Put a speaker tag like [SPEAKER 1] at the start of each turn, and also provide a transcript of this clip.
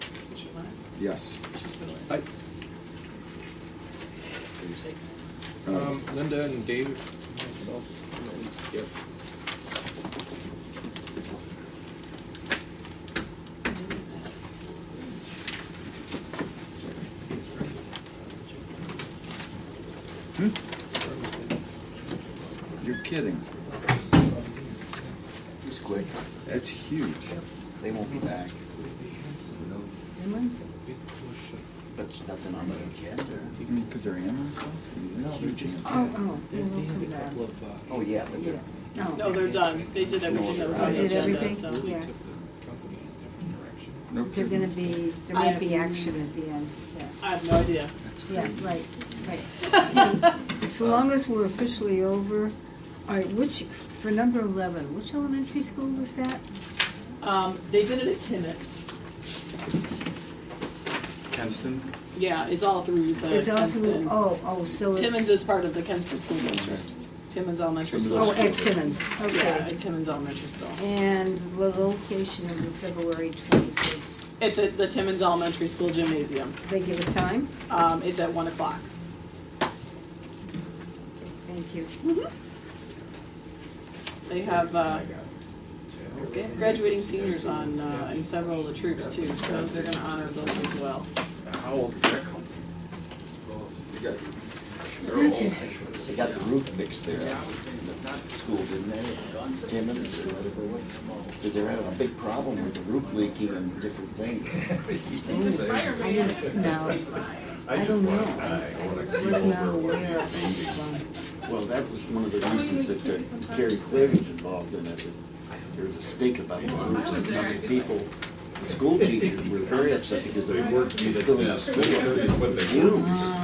[SPEAKER 1] Yes.
[SPEAKER 2] Aye.
[SPEAKER 1] Uh,
[SPEAKER 2] Um, Linda and Dave, myself, and then Skip.
[SPEAKER 1] hmm? You're kidding.
[SPEAKER 3] It was quick.
[SPEAKER 1] It's huge.
[SPEAKER 3] They won't be back, but there's nothing on the
[SPEAKER 1] I
[SPEAKER 3] agenda.
[SPEAKER 1] mean, because they're animals. No,
[SPEAKER 3] they're just-
[SPEAKER 4] Oh, oh, yeah,
[SPEAKER 2] They
[SPEAKER 4] we'll
[SPEAKER 2] have
[SPEAKER 4] come
[SPEAKER 2] a couple
[SPEAKER 4] back.
[SPEAKER 2] of, uh.
[SPEAKER 3] Oh, yeah, but they're,
[SPEAKER 5] No, they're done. They did everything that was on the
[SPEAKER 4] Did
[SPEAKER 5] agenda,
[SPEAKER 4] everything?
[SPEAKER 5] so.
[SPEAKER 2] Took the
[SPEAKER 4] Yeah.
[SPEAKER 2] company in a different direction.
[SPEAKER 1] Nope.
[SPEAKER 4] They're gonna be, there might be action at the end, yeah.
[SPEAKER 5] I have no idea.
[SPEAKER 4] Yeah, right, right. As long as we're officially over, all right, which, for number eleven, which elementary school was that?
[SPEAKER 5] Um, they did it at Timmins.
[SPEAKER 1] Kenston?
[SPEAKER 5] Yeah, it's all through the
[SPEAKER 4] It's also-
[SPEAKER 5] Kenston.
[SPEAKER 4] Oh, oh, so it's.
[SPEAKER 5] Timmins is part of the Kenston School District. Timmins Elementary School.
[SPEAKER 4] Oh, at
[SPEAKER 5] District.
[SPEAKER 4] Timmons,
[SPEAKER 5] Yeah,
[SPEAKER 4] okay.
[SPEAKER 5] at Timmins Elementary School.
[SPEAKER 4] And the location of the February twenty-fifth,
[SPEAKER 5] It's at the Timmins Elementary School Gymnasium.
[SPEAKER 4] they give a time?
[SPEAKER 5] Um, it's at one o'clock.
[SPEAKER 4] Thank you.
[SPEAKER 5] They have, uh, gra- graduating seniors on, uh, in several of the troops too, so they're gonna honor those as well.
[SPEAKER 2] How old is that company?
[SPEAKER 3] they got the roof fixed there. School, didn't they? Timmons or whatever. it was. But they're having a big problem with the roof leaking and different things.
[SPEAKER 4] I don't, no, I don't know. I was not aware of anything.
[SPEAKER 3] Well, that was one of the reasons that uh, Gary Clary's involved in it. There was a stake about the roofs and some of the people, the school teachers were very upset because they worked in filling the school. up with fumes.